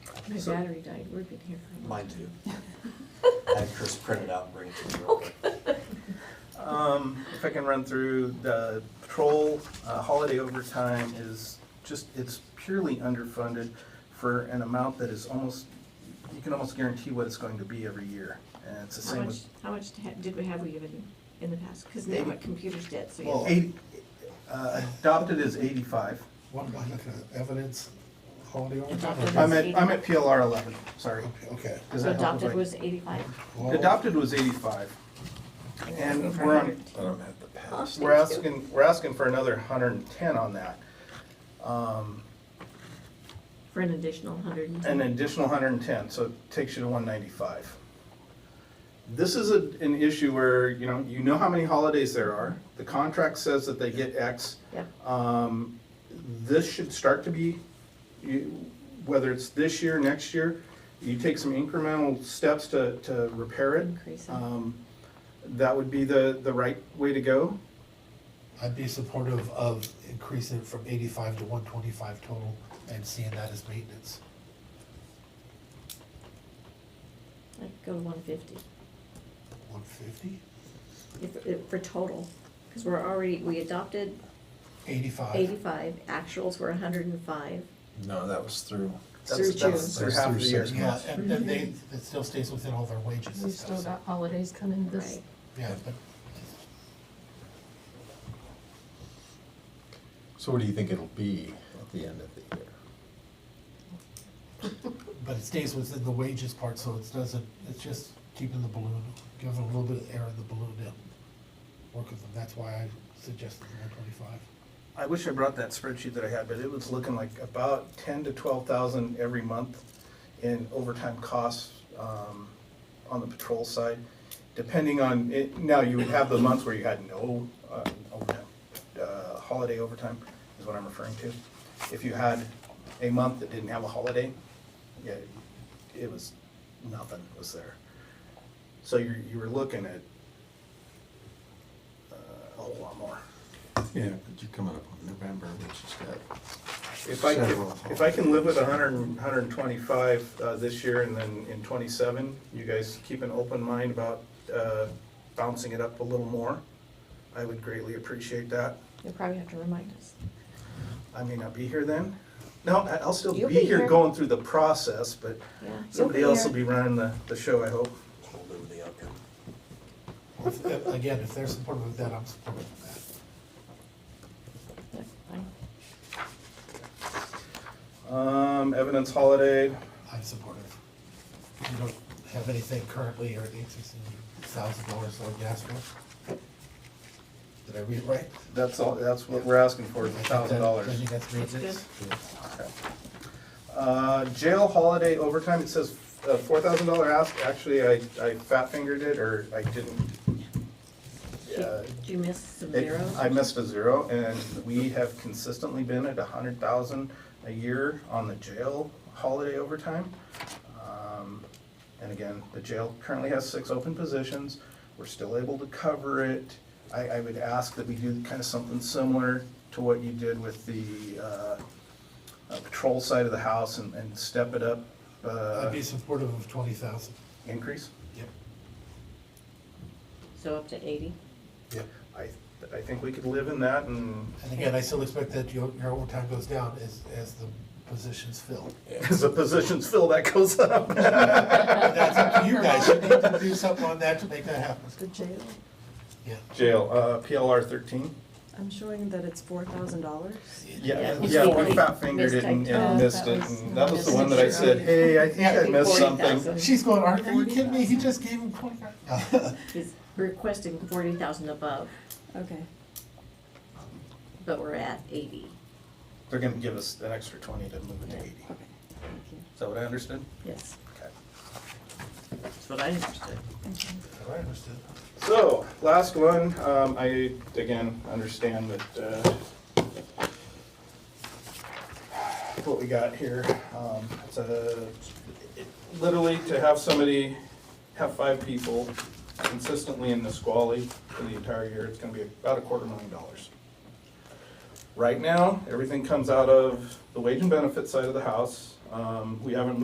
My So- battery died, we've been here for a while. Mine too. I had Chris print it out and bring it to me Oh, real quick. Um, if I can run through, the patrol uh, holiday overtime is just, it's purely underfunded for an amount that is almost, you can almost guarantee what it's going to be every year. And it's the How same much, with, how much ha- did we have we given in the past? Because now Eighty. what computers did, so well, you, eight, uh, adopted is eighty-five. What about like a evidence holiday Adopted. overtime? I'm at, I'm at PLR eleven, sorry. Okay, Does so that help if adopted I- was eighty-five. well, Adopted was eighty-five. And For we're on, 100. I don't have the past. We're asking, we're asking for another hundred and ten on that. Um, For an additional hundred and An ten. additional hundred and ten, so it takes you to one ninety-five. This is a, an issue where, you know, you know how many holidays there are, the contract says that they get X. Yeah, Um, This should start to be, you- whether it's this year, next year, you take some incremental steps to, to repair it. increase it. Um, That would be the, the right way to go. I'd be supportive of increasing it from eighty-five to one twenty-five total and seeing that as maintenance. I'd go to one fifty, One fifty? if, if, for total, because we're already, we adopted Eighty-five? eighty-five, actuals were hundred and five. No, that was through. Through That's, that's June. through half of the year. Through Yeah, and then they, it still stays within all their wages and We've stuff, still so, got holidays coming this, Right. yeah, but So what do you think it'll be at the end of the year? But it stays within the wages part, so it doesn't, it's just keeping the balloon, giving a little bit of air in the balloon to work with them. That's why I suggested the one twenty-five. I wish I brought that spreadsheet that I had, but it was looking like about ten to twelve thousand every month in overtime costs, um, on the patrol side. Depending on, it, now you would have the months where you had no, uh, overtime, uh, holiday overtime is what I'm referring to. If you had a month that didn't have a holiday, yeah, it was, nothing was there. So you're, you were looking at, uh, a whole lot more. Yeah, but you're coming up on November, which is that. If I can, Several. if I can live with a hundred and, hundred and twenty-five, uh, this year and then in twenty-seven, you guys keep an open mind about, uh, bouncing it up a little more. I would greatly appreciate that. You'll probably have to remind us. I may not be here then. No, I- I'll still You'll be be here here. going through the process, but Yeah. you'll somebody else will here. be running the, the show, I hope. Hold over the outcome. Again, if they're supportive of that, I'm supportive of that. Yeah, fine. Um, evidence holiday, I'm supportive. You don't have anything currently or increasing thousand dollars on gas for? Did I read it right? that's all, that's what we're asking for, is a thousand dollars. I think that's maintenance. Uh, jail holiday overtime, it says uh four thousand dollar ask, actually, I, I fat fingered it, or I didn't. uh, Did you miss some it- zeros? I missed a zero, and we have consistently been at a hundred thousand a year on the jail holiday overtime. Um, And again, the jail currently has six open positions, we're still able to cover it. I, I would ask that we do kind of something similar to what you did with the, uh, uh, patrol side of the house and, and step it up, I'd uh, be supportive of twenty thousand. increase. Yep. So up to eighty? Yep. I, I think we could live in that and And again, I still expect that your, your overtime goes down as, as the positions fill. as the positions fill, that goes up. That's up to you guys, you need to do something on that to make that happen. The jail, Yeah, Jail, uh, PLR thirteen. I'm showing that it's four thousand dollars. Yeah, Yeah, it's yeah, we forty. fat fingered it and and Mistyped. missed Oh, it, that was- and that was the one that I said, hey, I think I missed something. she's going, Art, are you kidding me, he just gave him twenty. He's requesting forty thousand above, Okay. but we're at eighty. They're gonna give us an extra twenty to move it to eighty. Okay, thank you. Is that what I understood? Yes, Okay. that's what I understood. I understood. So, last one, um, I, again, understand that, uh, what we got here, um, it's a, it- literally to have somebody, have five people consistently in Nisqually for the entire year, it's gonna be about a quarter million dollars. Right now, everything comes out of the wage and benefit side of the house, um, we haven't